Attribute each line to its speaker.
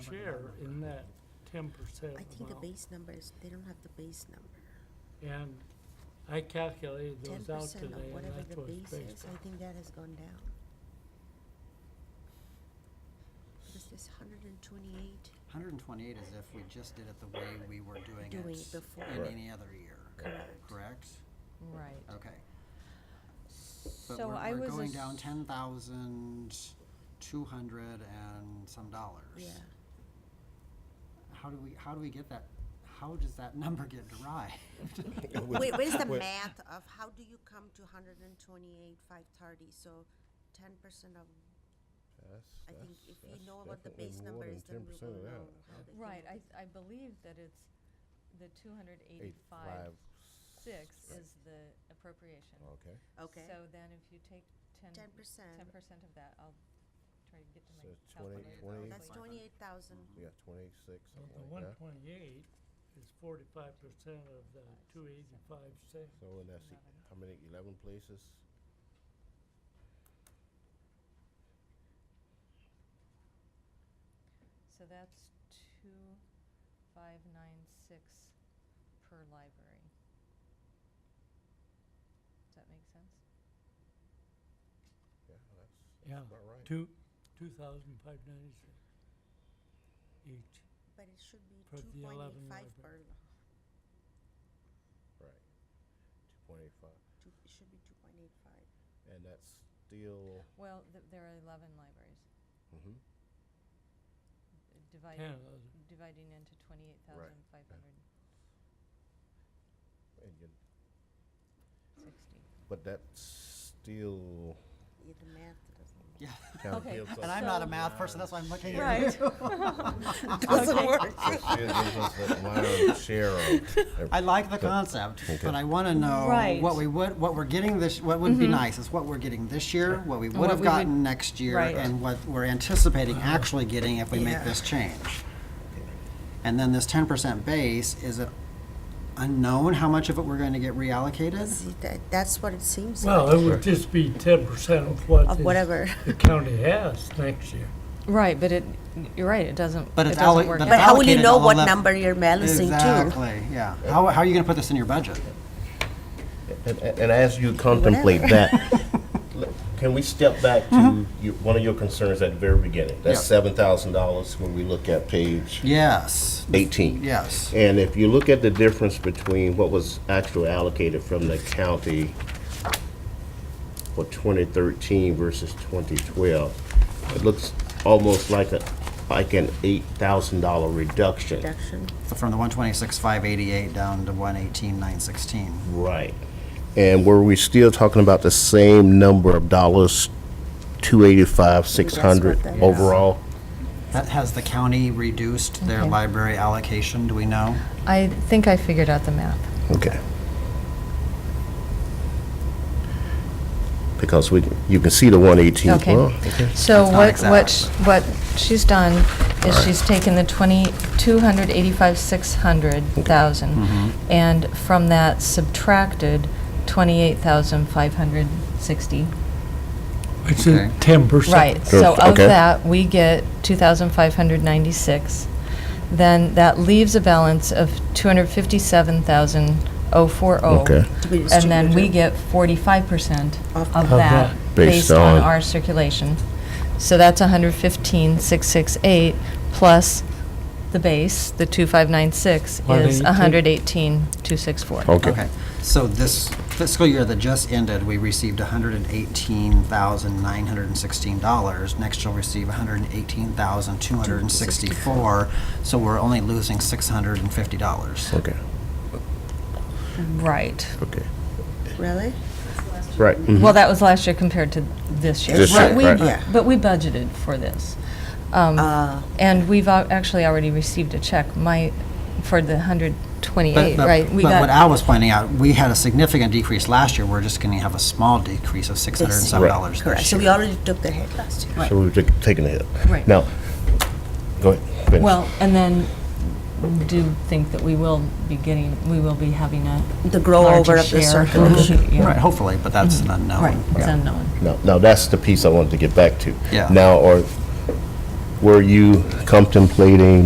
Speaker 1: share in that ten percent
Speaker 2: I think the
Speaker 1: amount.
Speaker 2: base number is, they don't have the base number.
Speaker 1: And I calculated
Speaker 2: Ten
Speaker 1: those out
Speaker 2: percent
Speaker 1: today,
Speaker 2: of
Speaker 1: and
Speaker 2: whatever
Speaker 1: that's
Speaker 2: the
Speaker 1: what's
Speaker 2: base
Speaker 1: based
Speaker 2: is,
Speaker 1: on.
Speaker 2: I think that has gone down. Because this hundred and twenty-eight,
Speaker 3: 128 is if we just did it the way we were doing it
Speaker 2: Doing it before.
Speaker 3: in
Speaker 4: Correct.
Speaker 3: any other year.
Speaker 2: Correct.
Speaker 3: Correct?
Speaker 5: Right.
Speaker 3: Okay. But
Speaker 5: So
Speaker 3: we're-
Speaker 5: I was.
Speaker 3: We're going
Speaker 5: ass-
Speaker 3: down 10,200 and some dollars.
Speaker 2: yeah,
Speaker 3: How do we, how do we get that, how does that number get derived?
Speaker 2: wait, what is the
Speaker 4: Wait.
Speaker 2: math of how do you come to hundred and twenty-eight, five thirty, so ten percent of, I think if you know what the base number is, then we will know how they came
Speaker 5: Right,
Speaker 2: up
Speaker 5: I,
Speaker 2: with-
Speaker 5: I believe that it's the two hundred eighty-five six is the appropriation.
Speaker 4: Okay,
Speaker 2: Okay,
Speaker 5: So then if you take ten,
Speaker 2: ten percent,
Speaker 5: ten percent of that, I'll try to get to
Speaker 4: So
Speaker 5: my
Speaker 3: Five hundred.
Speaker 2: that's
Speaker 4: it's 20 28
Speaker 5: calculator.
Speaker 2: twenty-eight thousand,
Speaker 4: yeah,
Speaker 1: Well,
Speaker 4: twenty-six, something
Speaker 1: the
Speaker 4: like
Speaker 1: one
Speaker 4: that.
Speaker 1: twenty-eight is forty-five percent of the two eighty-five six.
Speaker 4: So and that's, e-
Speaker 5: Eleven.
Speaker 4: how many, eleven places?
Speaker 5: So that's two, five, nine, six per library. Does that make sense?
Speaker 4: Yeah, that's
Speaker 1: Yeah,
Speaker 4: about right.
Speaker 1: two, two thousand five ninety-six each.
Speaker 2: but it should be
Speaker 1: For the
Speaker 2: two point
Speaker 1: 11
Speaker 2: eight five
Speaker 1: library.
Speaker 2: per, lo-
Speaker 4: Right. Two point eight five,
Speaker 2: two, it should be two point eight five.
Speaker 4: and that's still,
Speaker 5: Well, th- there are eleven libraries,
Speaker 4: mhm,
Speaker 5: uh, divided,
Speaker 1: Ten of them.
Speaker 5: dividing into twenty-eight thousand five hundred
Speaker 4: and you,
Speaker 5: sixty.
Speaker 4: but that's still
Speaker 2: Yeah, the math doesn't.
Speaker 3: Yeah.
Speaker 4: kind of
Speaker 5: Okay,
Speaker 4: gives us.
Speaker 3: And I'm not a
Speaker 5: So-
Speaker 3: math person, that's why I'm looking at you.
Speaker 5: Right.
Speaker 2: Doesn't work.
Speaker 4: It gives us that line share of
Speaker 3: I
Speaker 4: every-
Speaker 3: like the concept, but I want to know
Speaker 5: Right. Mm-hmm.
Speaker 3: what we would, what we're getting this, what would be nice is what we're getting this year, what we would
Speaker 5: what
Speaker 3: have
Speaker 5: we would-
Speaker 3: gotten next year,
Speaker 5: Right.
Speaker 3: and what we're anticipating actually getting if we make
Speaker 2: Yeah.
Speaker 3: this change. And then this ten percent base, is it unknown how much of it we're going to get reallocated?
Speaker 2: See, that, that's what it seems like,
Speaker 1: Well, it would just be ten percent of what
Speaker 2: of
Speaker 1: is-
Speaker 2: whatever.
Speaker 1: the county has next year.
Speaker 5: Right, but it, you're right, it doesn't,
Speaker 3: But it it's doesn't alloc- work but
Speaker 2: But
Speaker 3: it's
Speaker 2: how will you
Speaker 3: allocated
Speaker 2: know
Speaker 3: all
Speaker 2: what
Speaker 3: up-
Speaker 2: number you're balancing to?
Speaker 3: Exactly, yeah. How, how are you going to put this in your budget?
Speaker 4: And, and and as you contemplate that, l- can we step back to your, one of your concerns at the very beginning? That's
Speaker 3: Yeah.
Speaker 4: seven thousand dollars when we look at page
Speaker 3: Yes,
Speaker 4: eighteen.
Speaker 3: yes.
Speaker 4: And if you look at the difference between what was actually allocated from the county for twenty thirteen versus twenty twelve, it looks almost like a, like an eight thousand dollar reduction.
Speaker 2: Reduction.
Speaker 3: So from the one twenty-six, five eighty-eight down to one eighteen, nine sixteen.
Speaker 4: Right. And were we still talking about the same number of dollars, two eighty-five, six hundred
Speaker 2: that is.
Speaker 4: overall?
Speaker 3: That has the county reduced their
Speaker 5: Okay.
Speaker 3: library allocation, do we know?
Speaker 5: I think I figured out the math.
Speaker 4: Okay. Because we, you can see the one eighteen.
Speaker 5: Okay. So
Speaker 3: That's not
Speaker 5: what, what,
Speaker 3: exact,
Speaker 5: sh- what she's done is she's taken the 20, 285, 600,000,
Speaker 3: Mm-hmm.
Speaker 5: and from that subtracted 28,560.
Speaker 1: It's
Speaker 3: a Okay.
Speaker 1: ten percent.
Speaker 5: Right, so of
Speaker 4: Okay.
Speaker 5: that, we get 2,596. Then that leaves a balance of 257,040.
Speaker 4: Okay.
Speaker 2: To be
Speaker 5: And then we
Speaker 2: distributed.
Speaker 5: get 45%
Speaker 2: Of
Speaker 5: of
Speaker 1: that.
Speaker 5: that
Speaker 4: Based
Speaker 5: based on
Speaker 4: on-
Speaker 5: our circulation. So that's 115,668 plus the base, the 2,596 is
Speaker 1: 118.
Speaker 4: Oh.
Speaker 5: 118,264.
Speaker 3: Okay, so this fiscal year that just ended, we received hundred and eighteen thousand nine hundred and sixteen dollars. Next you'll receive hundred and eighteen thousand two hundred and sixty-four, so we're only losing six hundred and fifty dollars.
Speaker 4: Okay,
Speaker 5: Right.
Speaker 4: okay.
Speaker 2: Really?
Speaker 4: Right. mm-hmm.
Speaker 5: Well, that was last year compared to this year.
Speaker 4: This
Speaker 5: But
Speaker 4: year,
Speaker 5: we-
Speaker 4: right.
Speaker 2: Yeah.
Speaker 5: But we budgeted for this. Um,
Speaker 2: Ah.
Speaker 5: And we've al- actually already received a check, my, for the 128, right?
Speaker 3: But
Speaker 5: We
Speaker 3: what
Speaker 5: got
Speaker 3: Al was pointing out, we had a significant decrease last year, we're just gonna have a small decrease of six hundred and some
Speaker 4: Right.
Speaker 3: dollars
Speaker 2: Correct,
Speaker 3: this
Speaker 2: so we
Speaker 3: year.
Speaker 2: already took the hit last year.
Speaker 4: So we've ta- taken it.
Speaker 5: Right.
Speaker 4: Now, go ahead. finish.
Speaker 5: Well, and then we do think that we will be getting, we will be having a
Speaker 2: The grow
Speaker 5: larger
Speaker 2: over of the
Speaker 5: share. Mm-hmm.
Speaker 2: circulation.
Speaker 5: Yeah.
Speaker 3: Right, hopefully, but that's
Speaker 5: Mm-hmm.
Speaker 3: an unknown.
Speaker 5: Right, it's unknown.
Speaker 4: Now, now that's the piece I wanted to get back to.
Speaker 3: Yeah.
Speaker 4: Now, or were you contemplating